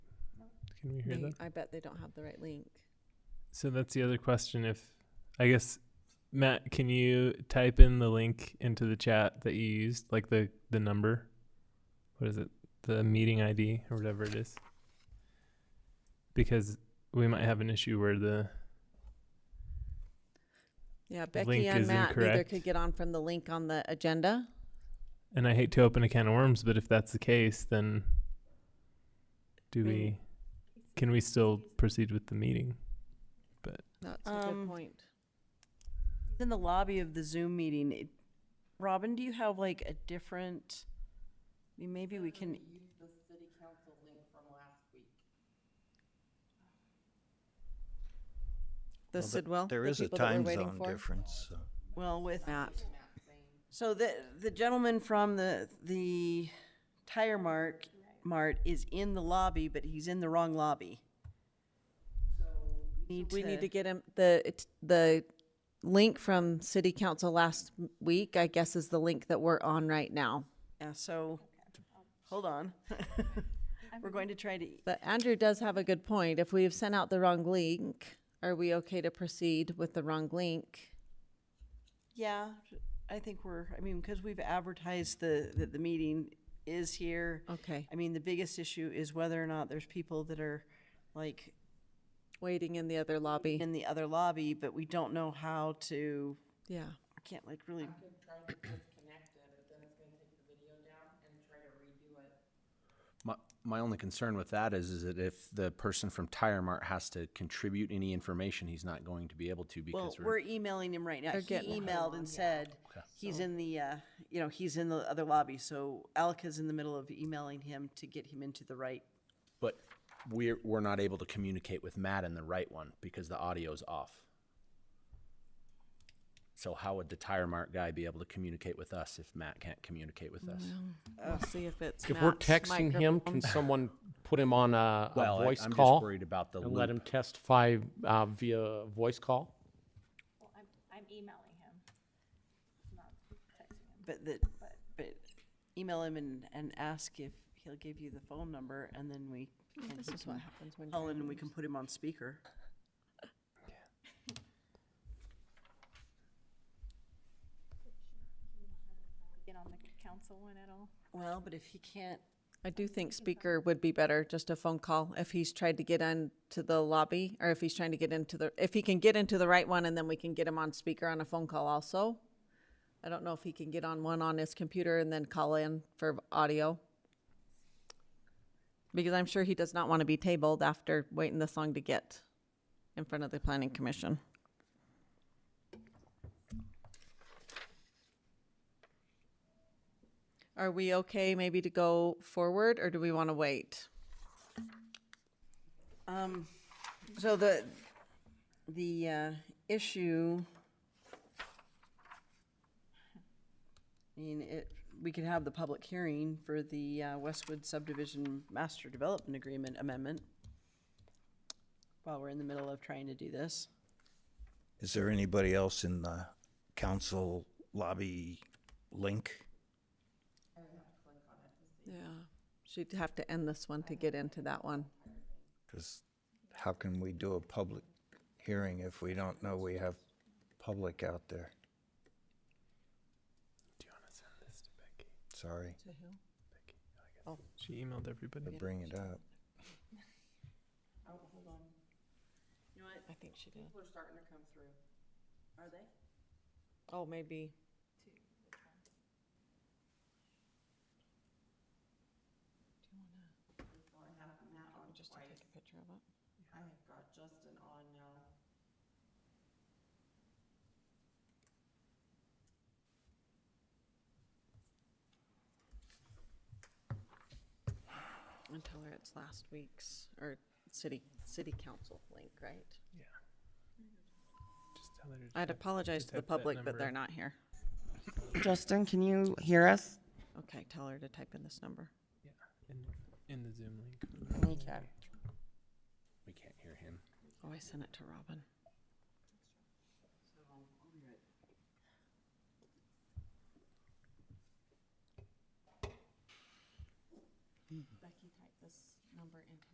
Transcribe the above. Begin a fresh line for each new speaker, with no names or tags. Can we hear
They-
that?
I bet they don't have the right link.
So that's the other question. If I guess Matt, can you type in the link into the chat that you used, like the the number? What is it? The meeting ID or whatever it is. Because we might have an issue where the
Yeah, Becky
link
and
is
Matt neither
incorrect.
could get on from the link on the agenda.
and I hate to open a can of worms, but if that's the case, then do
Mm.
we can we still proceed with the meeting?
That's a good
Um,
point.
in the lobby of the Zoom meeting. It, Robin, do you have like a different? I mean, maybe we can.
The
Well, th-
Sidwell.
There
the
is a
people that we're
time
waiting
zone
for?
difference, so.
Well, with
Matt.
so the the gentleman from the the tire mark mart is in the lobby, but he's in the wrong lobby. So
We need to get him the it's- the link from City Council last m- week. I guess is the link that we're on right now.
Yeah, so hold on. We're going to try to.
But Andrew does have a good point. If we've sent out the wrong link, are we okay to proceed with the wrong link?
Yeah, I think we're. I mean, because we've advertised the that the meeting is here.
Okay,
I mean, the biggest issue is whether or not there's people that are like
waiting in the other lobby.
in the other lobby, but we don't know how to,
Yeah.
I can't like really.
My, my only concern with that is, is that if the person from Tire Mart has to contribute any information, he's not going to be able to
Well,
because we're,
we're emailing him right now.
They're
He
getting-
emailed and said, he's in the, uh, you know, he's in the other lobby, so Alka's in the middle of emailing him to get him into the right.
but we're, we're not able to communicate with Matt in the right one because the audio's off. So how would the Tire Mart guy be able to communicate with us if Matt can't communicate with us?
We'll see if it's.
If we're
Matt's
texting him, can
microphone.
someone put him on a, a
Well, I-
voice
I'm
call
just worried about the
and let him
loop.
testify uh, via voice call?
Well, I'm, I'm emailing him, not texting him.
But the, but email him and, and ask if he'll give you the phone number and then we. and
This
he
is what
can
happens when.
Call in
you're-
and we can put him on speaker.
Get on the council one at all?
Well, but if he can't,
I do think speaker would be better, just a phone call, if he's tried to get into the lobby, or if he's trying to get into the, if he can get into the right one, and then we can get him on speaker on a phone call also. I don't know if he can get on one on his computer and then call in for audio. Because I'm sure he does not want to be tabled after waiting this long to get in front of the planning commission. Are we okay maybe to go forward, or do we want to wait?
Um, so the, the, uh, issue. I mean, it, we could have the public hearing for the, uh, Westwood subdivision master development agreement amendment. While we're in the middle of trying to do this.
Is there anybody else in the council lobby link?
Yeah. She'd have to end this one to get into that one.
Because how can we do a public hearing if we don't know we have public out there?
Do you want to send this to Becky?
Sorry
She emailed everybody.
to bring it up.
I think she did. People are starting to come through. Are they? Oh, maybe. Just to take a picture of it. I have got Justin on now. And tell her it's last week's, or city, city council link, right?
Just tell her to
I'd
type-
apologize
just
to the
type that
public, but
number.
they're not here.
Justin, can you hear us?
Okay, tell her to type in this number.
in, in the Zoom link.
Okay.
We can't hear him.
Oh, I sent it to Robin.